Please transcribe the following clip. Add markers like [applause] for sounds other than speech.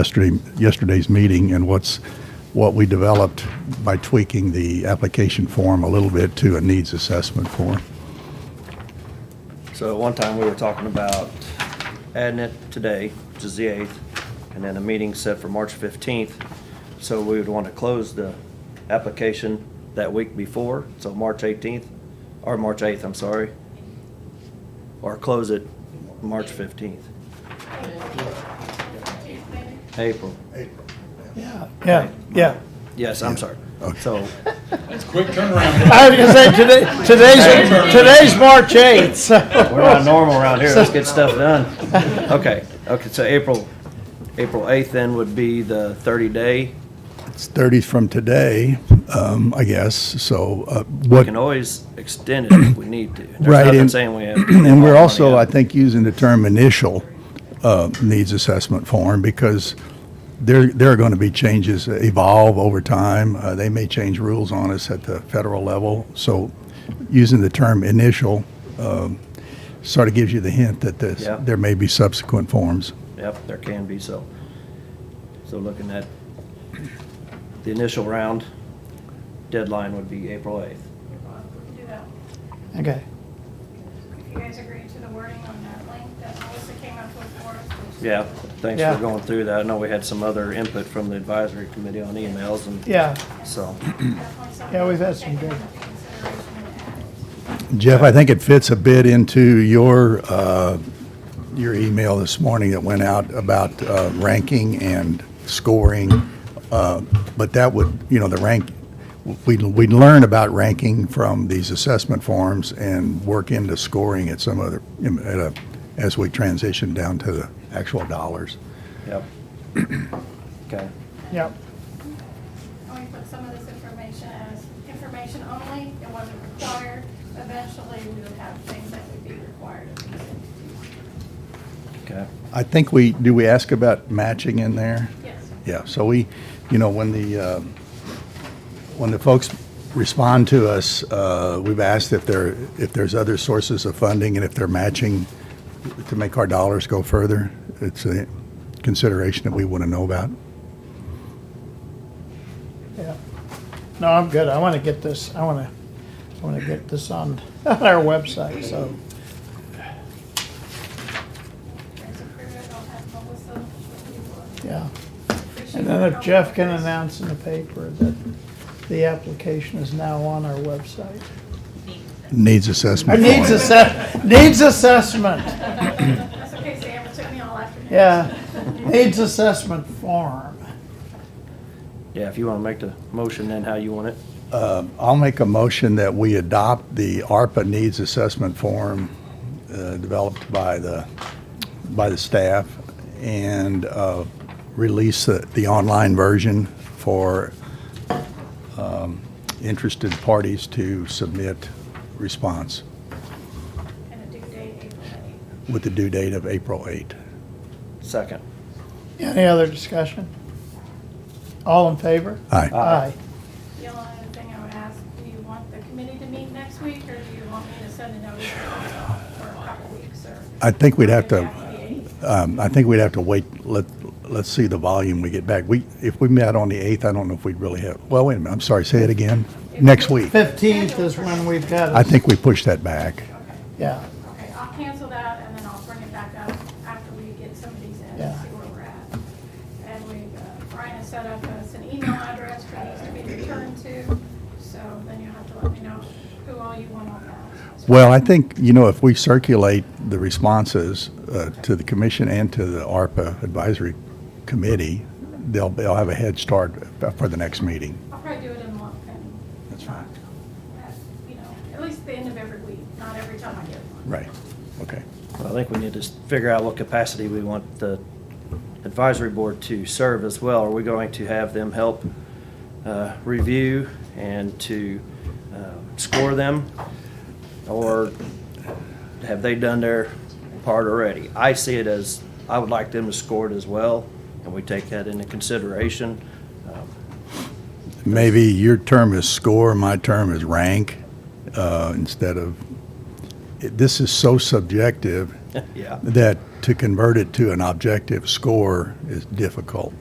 yesterday, yesterday's meeting and what's, what we developed by tweaking the application form a little bit to a needs assessment form. So at one time, we were talking about adding it today, which is the 8th, and then a meeting set for March 15th. So we would want to close the application that week before, so March 18th, or March 8th, I'm sorry. Or close it March 15th. April. Yeah, yeah, yeah. Yes, I'm sorry. So, It's quick turnaround. I was gonna say, today, today's, today's March eighth, we're not normal around here, let's get stuff [laughs] done. Okay, okay, so April, April 8th then would be the 30-day. It's 30 from today, um, I guess, so uh, what. We can always extend it if we need to. Right, There's nothing and- saying we have. [clears throat] And we're also, I Money think, using the term initial uh, needs assessment form because there, there are going to be changes that evolve over time. Uh, They may change rules on us at the federal level. So using the term initial um, sort of gives you the hint that this, Yeah. there may be subsequent forms. up. Yep, there can be, so. So looking at the initial round, deadline would be April 8th. Do that. Okay, If you guys agree to the wording on that link that Melissa came up with for us. which- Yeah, thanks Yeah. for going through that. I know we had some other input from the advisory committee on emails and yeah, so. Definitely something Yeah, we've to had some take good- into consideration and add. Jeff, I think it fits a bit into your, uh, your email this morning that went out about uh, ranking and scoring. uh, But that would, you know, the rank, we'd, we'd learn about ranking from these assessment forms and work into scoring at some other, at a, as we transition down to the actual dollars. Yep. Okay, yep, And we put some of this information as information only, it wasn't required. Eventually, we would have things that would be required of these entities. okay. I think we, do we ask about matching in there? Yes. Yeah, so we, you know, when the, um, when the folks respond to us, uh, we've asked if there, if there's other sources of funding and if they're matching to make our dollars go further. It's a consideration that we want to know about. yeah. No, I'm good, I wanna get this, I wanna, I wanna get this on, [laughs] on our website, so, If you guys approve it, I'll have Melissa, if you yeah. would. Appreciate And then your if Jeff help. can announce in the paper that the application is now on our website. Needs assessment. Needs form. assess, needs assessment, That's okay, Sam, it took me all afternoon. yeah, needs assessment form. Yeah, if you want to make the motion then how you want it. Um, I'll make a motion that we adopt the ARPA needs assessment form uh, developed by the, by the staff and uh, release the, the online version for um, interested parties to submit response And a due date, April eighth. with the due date of April 8. Second. Any other discussion? All in favor? Aye. Aye. The only other thing I would ask, do you want the committee to meet next week, or do you want me to send a notice for a couple weeks, or? I think we'd have to, After the eighth? um, I think we'd have to wait, let, let's see the volume we get back. We, if we met on the 8th, I don't know if we'd really have, well, wait a minute, I'm sorry, say it again. Next week. Fifteenth is when we've I got it, think we pushed that back. yeah, Okay, I'll cancel that, and then I'll bring it back up after we get some of these in and Yeah. see where we're at. And we, uh, Brian has set up us an email address for these to be returned to, so then you'll have to let me know who all you want on that. Well, I think, you know, if we circulate the responses uh, to the commission and to the ARPA advisory committee, they'll, they'll have a head start for the next meeting. I'll probably do it in a month, and, That's fine. uh, you know, at least the end of every week, not every time I get one. Right, okay. Well, I think we need to s- figure out what capacity we want the advisory board to serve as well. Are we going to have them help uh, review and to uh, score them? Or have they done their part already? I see it as, I would like them to score it as well, and we take that into consideration. [laughs] Um, Maybe your term is score, my term is rank, uh, instead of, it- this is so subjective, Yeah. that to convert it to an objective score is difficult.